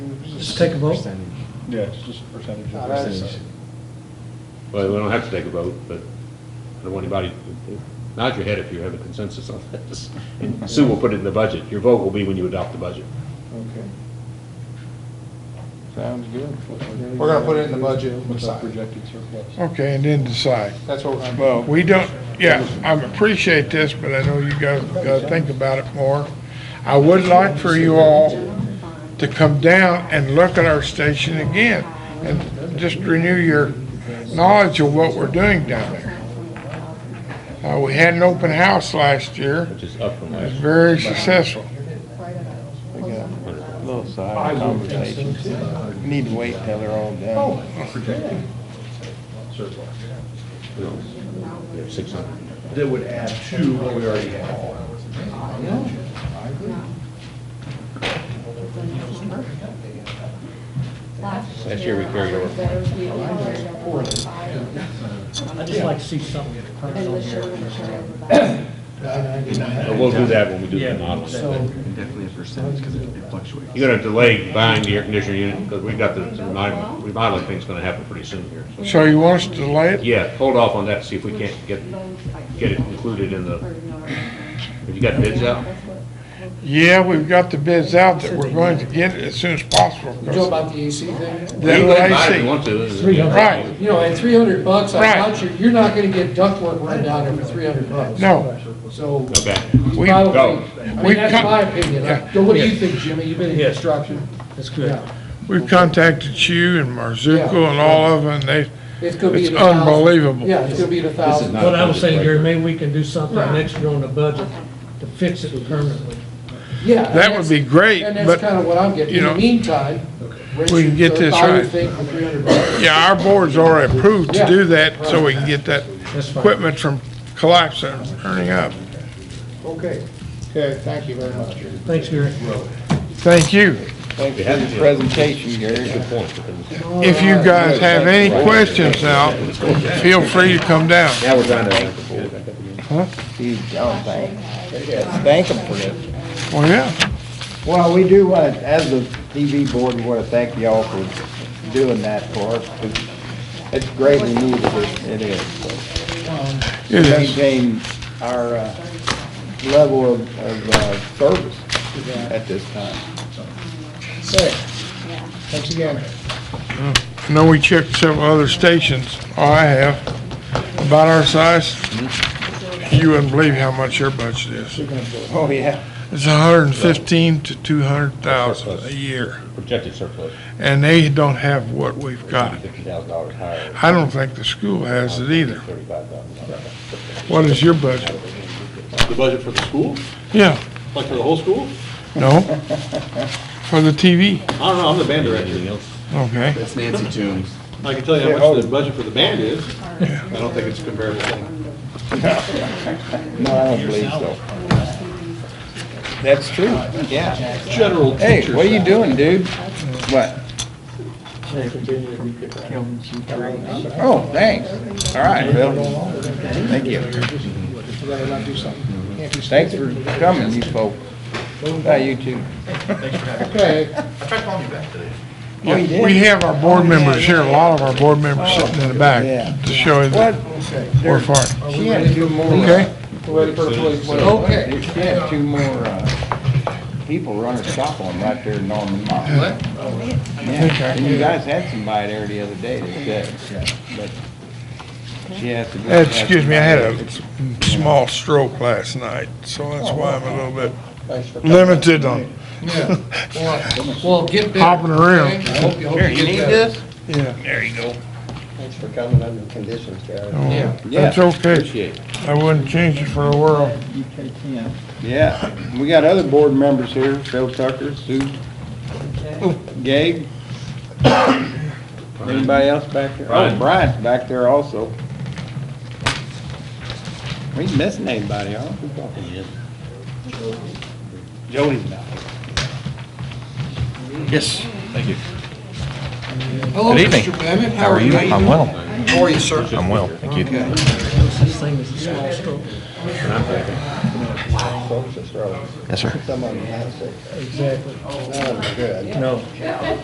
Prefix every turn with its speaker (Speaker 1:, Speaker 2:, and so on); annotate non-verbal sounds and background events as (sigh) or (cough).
Speaker 1: Just take a vote.
Speaker 2: Yeah, it's just a percentage
Speaker 3: Not
Speaker 2: of
Speaker 3: us.
Speaker 2: percentage.
Speaker 4: Well, we don't have to take a vote, but I don't want anybody, nod your head if you have a consensus on this. And Sue will put it in the budget. Your vote will be when you adopt the budget.
Speaker 2: Okay. Sounds good.
Speaker 3: We're gonna put it in the budget.
Speaker 2: What's our projected surplus?
Speaker 5: Okay, and then decide.
Speaker 3: That's what we're gonna.
Speaker 2: Well,
Speaker 5: We don't, yeah, I appreciate this, but I know you guys gotta think about it more. I would like for you all to come down and look at our station again and just renew your knowledge of what we're doing down there. Uh, we had an open house last year.
Speaker 4: Which is up from
Speaker 5: It was
Speaker 4: last.
Speaker 5: very successful.
Speaker 6: Little side conversations. You Need to wait till they're all done.
Speaker 2: Projected surplus.
Speaker 4: We have six hundred.
Speaker 7: that would add to what we already have.
Speaker 4: Last year we carried over.
Speaker 1: I'd just like to see something that occurs on here.
Speaker 4: But we'll do that when we do the models.
Speaker 7: And definitely a percentage, because it it fluctuates.
Speaker 4: You're gonna delay buying the air conditioner unit, because we've got the remodel- remodeling thing's gonna happen pretty soon here. so.
Speaker 5: So you want us to delay it?
Speaker 4: Yeah, hold off on that, see if we can't get, get it included in the, have you got bids out?
Speaker 5: Yeah, we've got the bids out that we're going to get it as soon as possible. 'cause
Speaker 8: You know about the AC thing?
Speaker 5: That
Speaker 4: You can buy it if
Speaker 5: AC
Speaker 4: you want to.
Speaker 5: Right.
Speaker 8: You know, at three hundred bucks, I
Speaker 5: Right.
Speaker 8: thought you, you're not gonna get ductwork run down there for three hundred bucks.
Speaker 5: No,
Speaker 8: So,
Speaker 4: Okay.
Speaker 5: we,
Speaker 8: probably,
Speaker 4: go.
Speaker 8: I
Speaker 5: We've
Speaker 8: mean, that's
Speaker 5: come-
Speaker 8: my opinion.
Speaker 5: Yeah.
Speaker 8: So what do you think, Jimmy? You've been in
Speaker 1: Yes.
Speaker 8: construction.
Speaker 1: That's good.
Speaker 8: Yeah.
Speaker 5: we've contacted you and Marzuko and all of them, and they,
Speaker 8: It's gonna be
Speaker 5: It's
Speaker 8: at a thousand.
Speaker 5: unbelievable.
Speaker 8: Yeah, it's gonna be at a thousand.
Speaker 4: not-
Speaker 1: What I was saying, Gary, maybe we can do something next year on the budget to fix it permanently.
Speaker 8: Yeah. and
Speaker 5: that would
Speaker 8: that's-
Speaker 5: be great,
Speaker 8: And that's kinda
Speaker 5: but,
Speaker 8: what I'm getting.
Speaker 5: you
Speaker 8: In the
Speaker 5: know,
Speaker 8: meantime, raise
Speaker 5: we can
Speaker 8: your-
Speaker 5: get
Speaker 8: the
Speaker 5: this
Speaker 8: buy your
Speaker 5: right.
Speaker 8: thing for three hundred bucks.
Speaker 5: yeah, our board's already approved to
Speaker 8: Yeah.
Speaker 5: do that, so we can get that
Speaker 1: That's fine.
Speaker 5: equipment from collapsing, and turning up.
Speaker 3: Okay.
Speaker 2: Okay, thank you very much.
Speaker 1: Thanks, Gary.
Speaker 5: Thank you.
Speaker 6: Thanks for the presentation, Gary.
Speaker 4: Good point, because
Speaker 5: If you guys have any questions now, feel free to come down.
Speaker 4: now we're trying to,
Speaker 6: Steve John, thanks. Thank him for this.
Speaker 5: Well, yeah,
Speaker 6: Well, we do want, as a TV board, we want to thank y'all for doing that for us. 'cause It's greatly needed, It- it is.
Speaker 5: it
Speaker 6: To
Speaker 5: is.
Speaker 6: Maintain our uh, level of, of uh, service at this time.
Speaker 3: Thanks again.
Speaker 5: I know we checked several other stations, all I have, about our size. You wouldn't believe how much your budget is.
Speaker 6: Oh, yeah.
Speaker 5: It's a hundred and fifteen to two hundred thousand a year,
Speaker 4: projected surplus,
Speaker 5: and they don't have what we've got.
Speaker 4: fifty thousand dollars higher,
Speaker 5: I don't think the school has it either.
Speaker 4: thirty-five thousand dollars.
Speaker 5: What is your budget?
Speaker 9: The budget for the school?
Speaker 5: Yeah,
Speaker 9: Like for the whole school?
Speaker 5: no? For the TV,
Speaker 9: I don't know, I'm the band director.
Speaker 4: Anything else?
Speaker 5: okay.
Speaker 7: That's Nancy Toombs.
Speaker 9: I can tell you how much the budget for the band is. I don't think it's a comparable thing.
Speaker 6: (laughs) No, I don't believe so. That's true, yeah.
Speaker 9: General
Speaker 6: Hey,
Speaker 9: teacher.
Speaker 6: what are you doing, dude? What? Oh, thanks. All right, Bill. Thank you. Thanks for coming, you folks. Hi, you too. Oh, you did?
Speaker 5: We have our board members here, a lot of our board members sitting in the back
Speaker 6: Yeah.
Speaker 5: to show you
Speaker 6: What?
Speaker 5: that we're far.
Speaker 3: Are we ready to do more?
Speaker 5: Okay,
Speaker 3: We're ready for employees.
Speaker 6: Okay. She had two more, uh, people run a shop on right there in Norman Mile. What? Yeah, and you guys had somebody there the other day that said, but she has to. go-
Speaker 5: Uh, excuse me, I had a small stroke last night, so
Speaker 6: Oh,
Speaker 5: that's why I'm a little bit limited on,
Speaker 8: Well, get better.
Speaker 5: Hopping around.
Speaker 8: okay? I hope you, hope
Speaker 6: Here,
Speaker 8: you
Speaker 6: you
Speaker 8: get
Speaker 6: need
Speaker 8: better.
Speaker 6: this?
Speaker 5: yeah.
Speaker 6: There you go.
Speaker 3: Thanks for coming under conditions, Gary.
Speaker 5: Oh,
Speaker 8: Yeah.
Speaker 5: That's
Speaker 6: Yeah.
Speaker 5: okay.
Speaker 4: Appreciate it.
Speaker 5: I wouldn't change it for the world.
Speaker 6: Yeah, we got other board members here, Bill Tucker, Sue, Gabe. Anybody else back there? Oh,
Speaker 4: Brian.
Speaker 6: Brian's back there also. We missing anybody, huh? Who's talking? Jody's not.
Speaker 7: Yes. Thank you.
Speaker 8: Hello,
Speaker 7: Good evening.
Speaker 8: Mr. Bennett, how are you?
Speaker 7: I'm well.
Speaker 8: How are you, sir?
Speaker 7: I'm well, thank you.
Speaker 1: This thing is a small stroke.
Speaker 3: Folks, it's wrong.
Speaker 7: Yes, sir.
Speaker 3: Someone has it.
Speaker 1: Exactly.
Speaker 3: Not good.
Speaker 1: No.